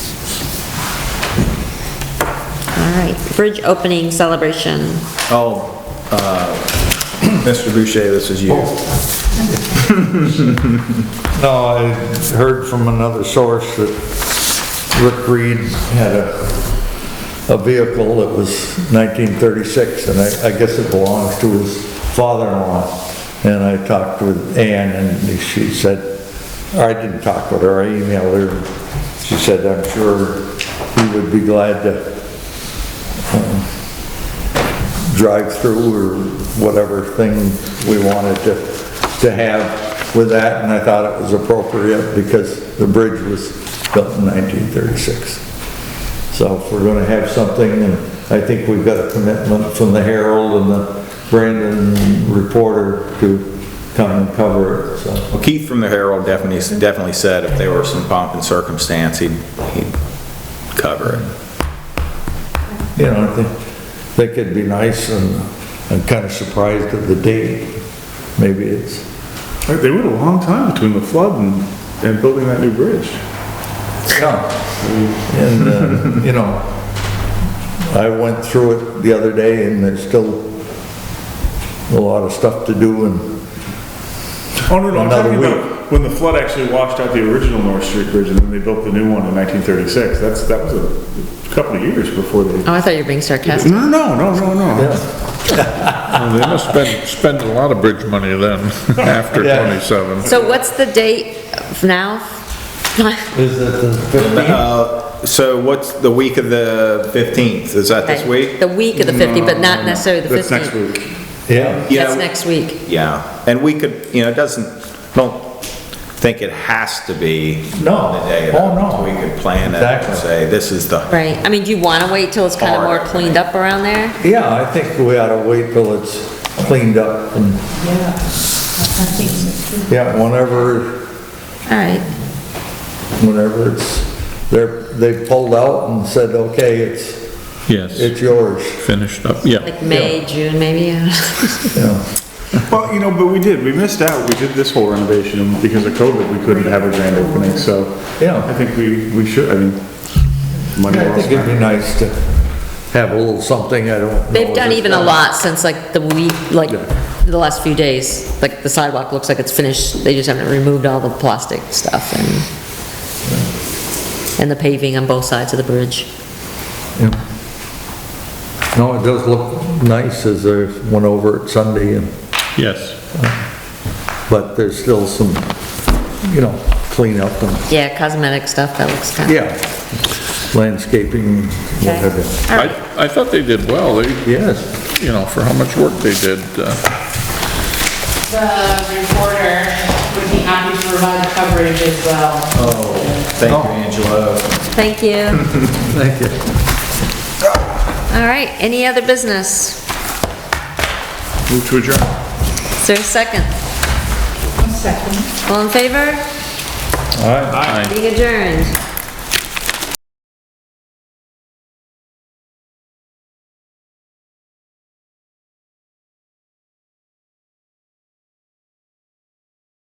All right, bridge opening celebration. Oh, uh, Mr. Boucher, this is you. No, I heard from another source that Rick Reed had a, a vehicle that was 1936, and I, I guess it belongs to his father-in-law. And I talked with Ann, and she said, or I didn't talk with her, I emailed her. She said, I'm sure he would be glad to um, drive through or whatever thing we wanted to, to have with that, and I thought it was appropriate because the bridge was built in 1936. So if we're gonna have something, and I think we've got a commitment from the Herald and the Brandon reporter to come and cover it, so. Well, Keith from the Herald definitely, definitely said if there were some pomp and circumstance, he'd, he'd cover it. You know, I think, think it'd be nice, and I'm kinda surprised at the date. Maybe it's Like, They went a long time between the flood and, and building that new bridge. Yeah, and, uh, you know, I went through it the other day and there's still a lot of stuff to do and, Oh, no, no, I'm Another talking week. about when the flood actually washed out the original North Street Bridge and then they built the new one in 1936. That's, that was a couple of years before they. Oh, I thought you were being sarcastic. No, no, no, no, no. yeah, Well, They must spend, spend a lot of bridge money then, after Yeah. 27. So what's the date of now? is it the fifteenth? Uh, so what's the week of the 15th? Is that this week? The week of the 50, but not necessarily the That's 15th. next week. Yeah, Yeah. That's next week. Yeah, and we could, you know, it doesn't, don't think it has to be No. on the day. of Oh, it. no. We could plan it Exactly. and say, this is the, Right, I mean, do you want to wait till it's kind of more Hard. cleaned up around there? yeah, I think we ought to wait till it's cleaned up and, yeah, whenever, All right, whenever it's, they're, they pulled out and said, okay, it's, Yes, it's yours, finished up, yeah. like May, June, maybe? you know. Well, you know, but we did, we missed out. We did this whole renovation and because of COVID, we couldn't have a grand opening, so. Yeah. I think we, we should, I mean, money I well think it'd spent. be nice to have a little something, I don't know. They've done if even a it's- lot since like the week, like the last few days. Like the sidewalk looks like it's finished, they just haven't removed all the plastic stuff and, and the paving on both sides of the bridge. Yeah. No, it does look nice as I went over it Sunday, and, Yes, but there's still some, you know, cleanup and, Yeah, cosmetic stuff, that looks kind of. yeah, landscaping, whatever. I, I thought they did well, they, Yes, you know, for how much work they did, uh, The reporter would be happy to provide coverage as well. thank you, Angelo. Thank you. thank you. All right, any other business? Move to adjourn. Is there a second? Second. All in favor? I- Being adjourned.